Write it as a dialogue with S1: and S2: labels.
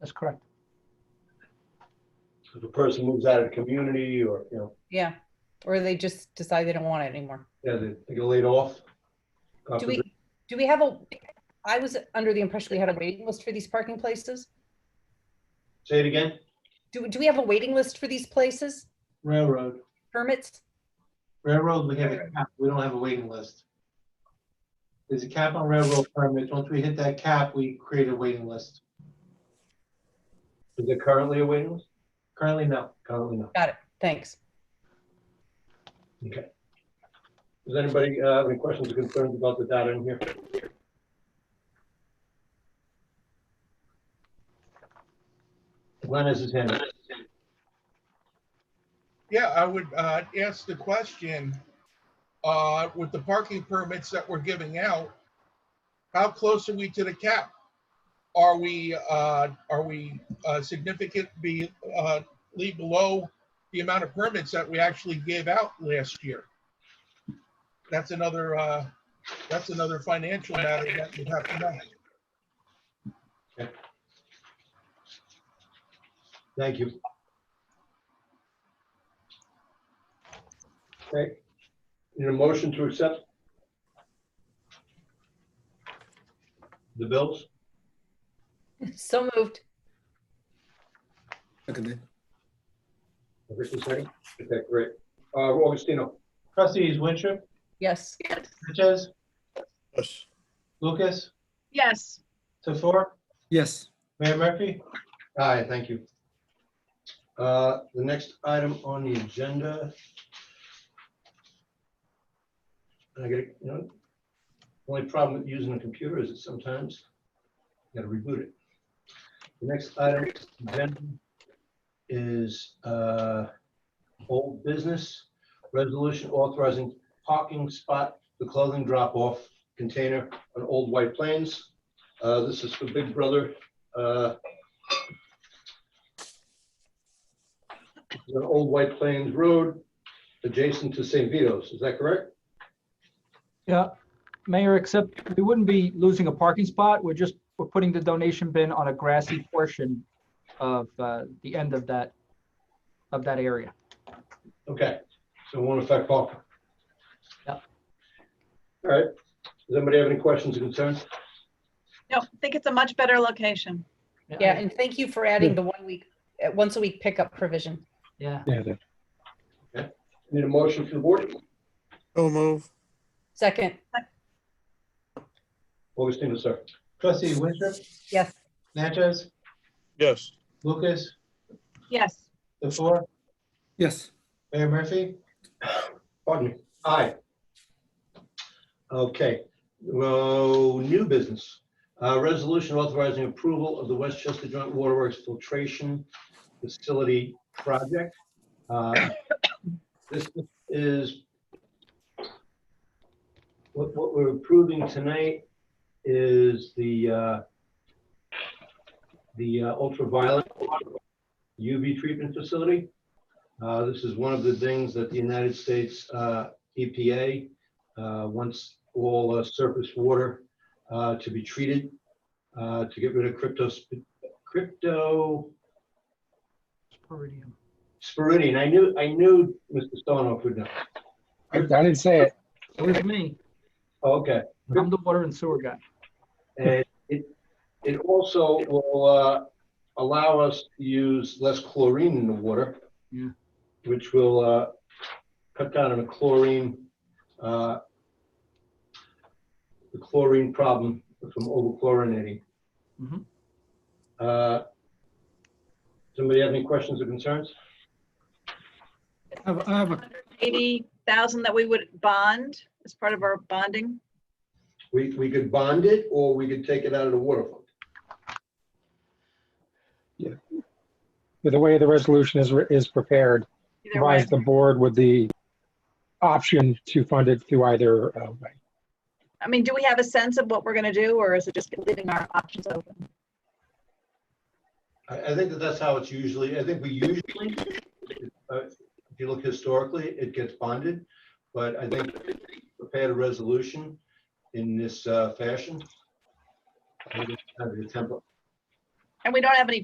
S1: That's correct.
S2: If a person moves out of the community or, you know,
S3: Yeah, or they just decide they don't want it anymore.
S2: yeah, they they get laid off. God
S3: Do we,
S2: forbid.
S3: do we have a, I was under the impression we had a waiting list for these parking places.
S2: Say it again?
S3: Do, do we have a waiting list for these places,
S4: Railroad,
S3: permits?
S4: railroad, we have a cap, we don't have a waiting list. There's a cap on railroad permits, once we hit that cap, we create a waiting list.
S2: Is there currently a waiting list?
S4: Currently, no.
S2: Currently not.
S3: Got it, thanks.
S2: Okay. Does anybody uh, have any questions or concerns about the data in here? Glenn has his hand. up.
S5: Yeah, I would uh, ask the question, uh, with the parking permits that we're giving out, how close are we to the cap? Are we, uh, are we uh, significant be, uh, leave below the amount of permits that we actually gave out last year? That's another, uh, that's another financial matter that we have to know.
S2: Thank you. Okay. Need a motion to accept? The bills?
S3: So moved.
S6: Seconded.
S2: Richard second? Okay, great. Uh, Augustino?
S4: Trustees Wintrip,
S3: Yes,
S4: Natchez,
S6: Yes.
S4: Lucas,
S7: Yes,
S4: Tofor,
S6: Yes.
S4: Mayor Murphy?
S2: Aye, thank you. Uh, The next item on the agenda. I get, it, you know, only problem with using a computer is that sometimes you gotta reboot it. The next item on the agenda is uh, old business, resolution authorizing parking spot, the clothing drop-off container on Old White Plains. Uh, This is for Big Brother uh, on Old White Plains Road, adjacent to St. Vito's, is that correct?
S1: Yeah, Mayor, except we wouldn't be losing a parking spot. We're just, we're putting the donation bin on a grassy portion of uh, the end of that, of that area.
S2: Okay, so it won't affect parking.
S1: Yep.
S2: All right, does anybody have any questions or concerns?
S7: no, I think it's a much better location.
S3: yeah, and thank you for adding the one week, uh, once a week pickup provision.
S1: Yeah.
S2: Need a motion from the board?
S6: So move.
S3: Second,
S2: Augustino, sir.
S4: Trustees Wintrip,
S3: yes,
S4: Natchez,
S6: Yes.
S4: Lucas,
S7: Yes,
S4: Tofor,
S6: Yes.
S4: Mayor Murphy?
S2: Pardon me. Aye. Okay, well, new business. Uh, Resolution authorizing approval of the Westchester Joint Waterworks Filtration Facility Project. Uh, This is, what, what we're approving tonight is the, uh, the uh, ultraviolet UV treatment facility. Uh, This is one of the things that the United States uh, EPA uh, wants all uh, surface water uh, to be treated uh, to get rid of crypto, crypto
S1: Spiridium.
S2: sporidion. I knew, I knew Mr. Stonoff would know.
S8: I I didn't say it.
S1: It was me.
S2: Okay.
S1: I'm the water and sewer guy.
S2: And it, it also will uh, allow us to use less chlorine in the water.
S1: Yeah.
S2: Which will uh, cut down on the chlorine, uh, the chlorine problem from overchlorinating.
S1: Mhm.
S2: Uh, Somebody have any questions or concerns?
S6: I have, I have a,
S7: eighty thousand that we would bond as part of our bonding.
S2: We, we could bond it or we could take it out of the water fund.
S8: The way the resolution is, is prepared,
S7: Either way,
S8: provides the board with the option to fund it through either uh, way.
S7: I mean, do we have a sense of what we're gonna do, or is it just leaving our options open?
S2: I, I think that that's how it's usually, I think we usually, uh, if you look historically, it gets bonded, but I think prepared a resolution in this uh, fashion. I think it's kind of the template.
S7: And we don't have any